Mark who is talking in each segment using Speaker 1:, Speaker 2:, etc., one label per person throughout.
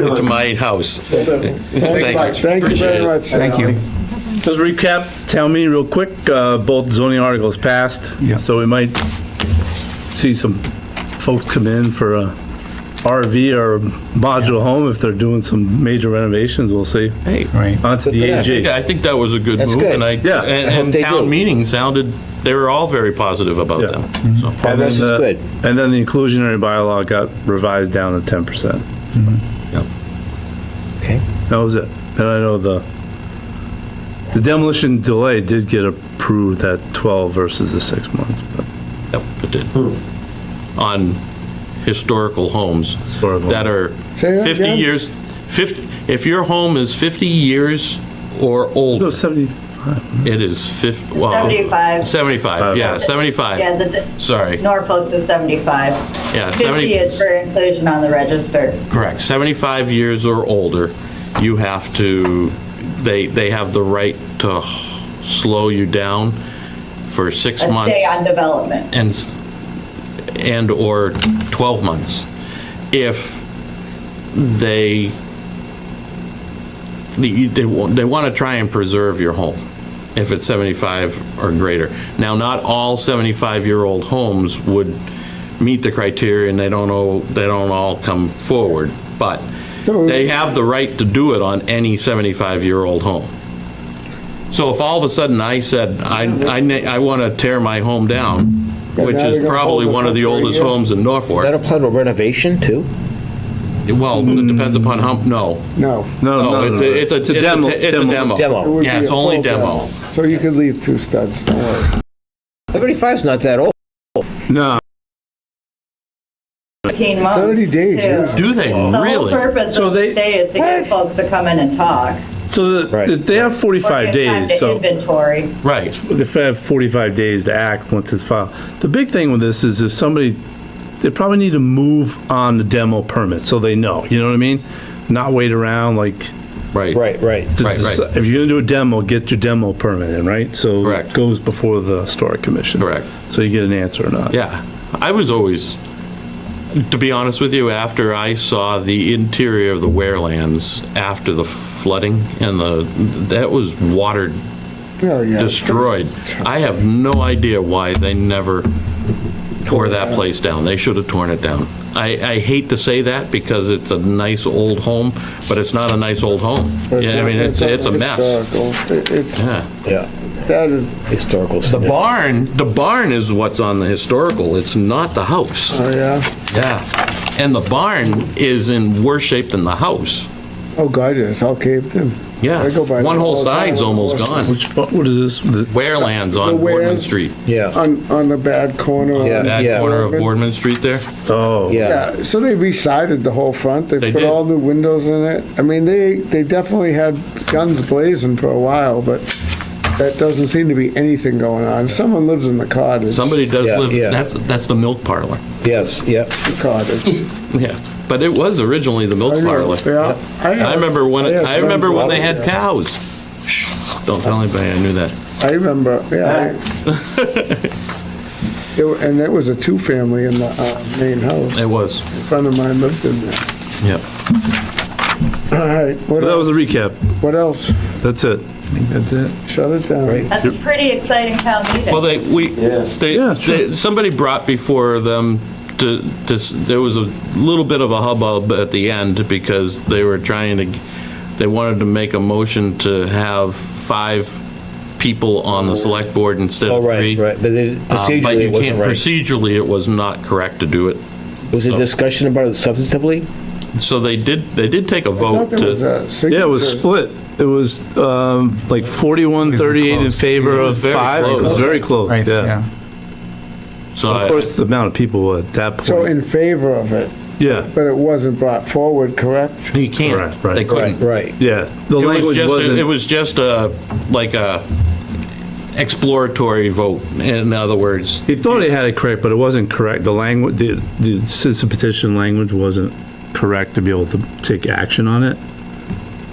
Speaker 1: to my house. Thank you.
Speaker 2: Thank you
Speaker 1: Appreciate
Speaker 2: very
Speaker 1: it.
Speaker 2: much.
Speaker 3: Thank you.
Speaker 4: Let's recap town meeting real quick. Uh, Both zoning articles passed.
Speaker 3: Yeah.
Speaker 4: So we might see some folks come in for a RV or modular home if they're doing some major renovations, we'll see.
Speaker 1: Hey,
Speaker 3: Right.
Speaker 4: Onto the
Speaker 1: I think-
Speaker 4: AG.
Speaker 1: I think that was a good
Speaker 2: That's
Speaker 1: move,
Speaker 2: good.
Speaker 1: and I,
Speaker 4: Yeah.
Speaker 1: and
Speaker 2: I hope
Speaker 1: and
Speaker 2: they
Speaker 1: town
Speaker 2: do.
Speaker 1: meeting sounded, they were all very positive about
Speaker 4: Yeah.
Speaker 1: them, so.
Speaker 4: And
Speaker 2: Progress
Speaker 4: then,
Speaker 2: is
Speaker 4: uh,
Speaker 2: good.
Speaker 4: And then the inclusionary bylaw got revised down to 10%.
Speaker 2: Okay.
Speaker 4: That was it. And I know the, the demolition delay did get approved at 12 versus the six months, but
Speaker 1: Yep, it did.
Speaker 2: Hmm.
Speaker 1: On historical homes
Speaker 4: Historical.
Speaker 1: that are
Speaker 2: Say that
Speaker 1: 50
Speaker 2: again?
Speaker 1: years, 50, if your home is 50 years or
Speaker 4: no,
Speaker 1: older,
Speaker 4: 70,
Speaker 1: it is 50, well.
Speaker 5: 75.
Speaker 1: 75, yeah, 75.
Speaker 5: Yeah, the
Speaker 1: Sorry,
Speaker 5: Norfolk's is 75.
Speaker 1: yeah,
Speaker 5: 50
Speaker 1: 70,
Speaker 5: is for inclusion on the register.
Speaker 1: correct, 75 years or older, you have to, they, they have the right to slow you down for six
Speaker 5: A
Speaker 1: months.
Speaker 5: stay on development.
Speaker 1: and, s- and/or 12 months. If they, they, they want to try and preserve your home, if it's 75 or greater. Now, not all 75-year-old homes would meet the criteria, and they don't know, they don't all come forward, but
Speaker 2: So-
Speaker 1: they have the right to do it on any 75-year-old home. So if all of a sudden I said, I, I, na- I want to tear my home down,
Speaker 2: Yeah,
Speaker 1: which
Speaker 2: now they're
Speaker 1: is
Speaker 2: gonna
Speaker 1: probably
Speaker 2: hold us
Speaker 1: one
Speaker 2: up
Speaker 1: of the
Speaker 2: for a
Speaker 1: oldest
Speaker 2: year.
Speaker 1: homes in
Speaker 6: Does that
Speaker 1: Norfolk,
Speaker 6: apply to renovation too?
Speaker 1: well, it depends upon how, no.
Speaker 4: no,
Speaker 2: No.
Speaker 4: no,
Speaker 1: No,
Speaker 4: no.
Speaker 1: Oh, it's, a- it's a, it's a,
Speaker 4: demo-
Speaker 1: it's a
Speaker 4: demo.
Speaker 1: demo.
Speaker 6: Demo.
Speaker 2: It would
Speaker 1: Yeah,
Speaker 2: be
Speaker 1: it's
Speaker 2: a
Speaker 1: only
Speaker 2: full
Speaker 1: demo.
Speaker 2: So you could leave two studs, don't worry.
Speaker 6: 75's not that old.
Speaker 4: No,
Speaker 5: 18 months.
Speaker 2: 30 days,
Speaker 5: too.
Speaker 2: yeah.
Speaker 1: Do they
Speaker 5: The whole
Speaker 1: really?
Speaker 5: purpose
Speaker 4: So
Speaker 5: of
Speaker 4: they-
Speaker 5: the stay is to get folks to come in and talk.
Speaker 4: so the-
Speaker 6: Right.
Speaker 4: they have
Speaker 5: or
Speaker 4: 45
Speaker 5: give time
Speaker 4: days,
Speaker 5: to
Speaker 4: so
Speaker 5: Inventory.
Speaker 1: Right,
Speaker 4: they have 45 days to act once it's filed. The big thing with this is if somebody, they probably need to move on the demo permit, so they know, you know what I mean? Not wait around like,
Speaker 1: right.
Speaker 6: Right, right.
Speaker 4: to
Speaker 1: Right, right.
Speaker 4: deci- if you're gonna do a demo, get your demo permit in, right? So
Speaker 1: Correct.
Speaker 4: it goes before the historic commission.
Speaker 1: Correct.
Speaker 4: So you get an answer or not.
Speaker 1: Yeah, I was always, to be honest with you, after I saw the interior of the Warelands after the flooding and the, that was watered,
Speaker 2: Oh, yeah.
Speaker 1: destroyed. I have no idea why they never tore that place down. They should have torn it down. I, I hate to say that because it's a nice old home, but it's not a nice old home.
Speaker 2: But
Speaker 1: Yeah, I mean, it's, it's a mess.
Speaker 2: historical. It- It's,
Speaker 1: Yeah.
Speaker 6: Yeah,
Speaker 2: that is,
Speaker 6: historical.
Speaker 1: The
Speaker 6: stuff.
Speaker 1: barn, the barn is what's on the historical, it's not the house.
Speaker 2: oh, yeah.
Speaker 1: Yeah, and the barn is in worse shape than the house.
Speaker 2: Oh, God, it's all caved in.
Speaker 1: Yeah,
Speaker 2: I go by
Speaker 1: one
Speaker 2: there
Speaker 1: whole
Speaker 2: all the
Speaker 1: side's
Speaker 2: time.
Speaker 1: almost gone.
Speaker 4: Which, what what is this? The-
Speaker 1: Warelands
Speaker 2: The
Speaker 1: on Boardman
Speaker 2: wares.
Speaker 1: Street,
Speaker 6: Yeah,
Speaker 2: On, on the bad corner.
Speaker 6: Yeah.
Speaker 1: that corner of
Speaker 2: Boardman.
Speaker 1: Boardman Street there.
Speaker 4: Oh.
Speaker 6: yeah.
Speaker 2: Yeah, so they resided the whole front. They
Speaker 1: They
Speaker 2: put
Speaker 1: did.
Speaker 2: all new windows in it. I mean, they, they definitely had guns blazing for a while, but that doesn't seem to be anything going on. Someone lives in the cottage.
Speaker 1: Somebody does
Speaker 6: Yeah,
Speaker 1: live,
Speaker 6: yeah.
Speaker 1: that's, that's the milk parlor.
Speaker 6: Yes, yeah.
Speaker 2: Cottage.
Speaker 1: Yeah, but it was originally the milk parlor.
Speaker 2: Yeah.
Speaker 1: I remember when,
Speaker 2: had
Speaker 1: I remember
Speaker 2: friends
Speaker 1: when
Speaker 2: who
Speaker 1: they
Speaker 2: lived
Speaker 1: had
Speaker 2: there.
Speaker 1: cows. Shh, Don't tell anybody I knew that.
Speaker 2: I remember, yeah. I- It wa- And it was a two-family in the uh, main house.
Speaker 1: It was,
Speaker 2: A friend of mine lived in there.
Speaker 1: yeah.
Speaker 2: All right, what
Speaker 4: That was a
Speaker 2: else?
Speaker 4: recap.
Speaker 2: What else?
Speaker 4: That's it. That's it.
Speaker 2: Shut it down.
Speaker 5: That's a pretty exciting town meeting.
Speaker 1: Well, they, we, they,
Speaker 4: Yeah, sure.
Speaker 1: they- somebody brought before them to, to s- there was a little bit of a hubbub at the end because they were trying to, they wanted to make a motion to have five people on the select board instead
Speaker 6: Oh,
Speaker 1: of
Speaker 6: right,
Speaker 1: three.
Speaker 6: right. But it-
Speaker 1: Um, But
Speaker 6: procedurally,
Speaker 1: you
Speaker 6: it
Speaker 1: can't, Oh.
Speaker 6: wasn't right.
Speaker 1: procedurally, it was not correct to do it.
Speaker 6: Was there discussion about it substantively?
Speaker 1: So they did, they did take a
Speaker 2: I
Speaker 1: vote
Speaker 2: thought there was
Speaker 1: to,
Speaker 2: a
Speaker 4: Yeah, it was
Speaker 2: signature.
Speaker 4: split. It was um, like 41, 38 in
Speaker 3: close.
Speaker 4: favor
Speaker 1: It was
Speaker 4: of
Speaker 1: very
Speaker 4: five. It
Speaker 1: close.
Speaker 4: was very close,
Speaker 3: Right,
Speaker 4: yeah.
Speaker 3: yeah.
Speaker 1: so
Speaker 4: Of
Speaker 1: I-
Speaker 4: course, the amount of people at that
Speaker 2: So
Speaker 4: point,
Speaker 2: in favor of it,
Speaker 4: yeah,
Speaker 2: but it wasn't brought forward, correct?
Speaker 1: you
Speaker 4: Right,
Speaker 1: can't,
Speaker 4: right.
Speaker 1: they couldn't.
Speaker 6: Right.
Speaker 4: yeah. The
Speaker 1: It was
Speaker 4: language
Speaker 1: just, it
Speaker 4: wasn't,
Speaker 1: was just a, like a exploratory vote, in other words.
Speaker 4: he thought he had it correct, but it wasn't correct. The language, the, the citizen petition language wasn't correct to be able to take action on it.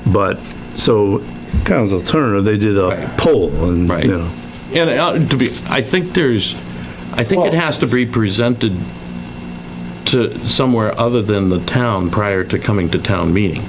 Speaker 4: But, so, kind of as an alternative, they did a poll and,
Speaker 1: Right.
Speaker 4: you know.
Speaker 1: And uh, to be, I think there's, I think it
Speaker 2: Well-
Speaker 1: has to be presented to somewhere other than the town prior to coming to town meeting.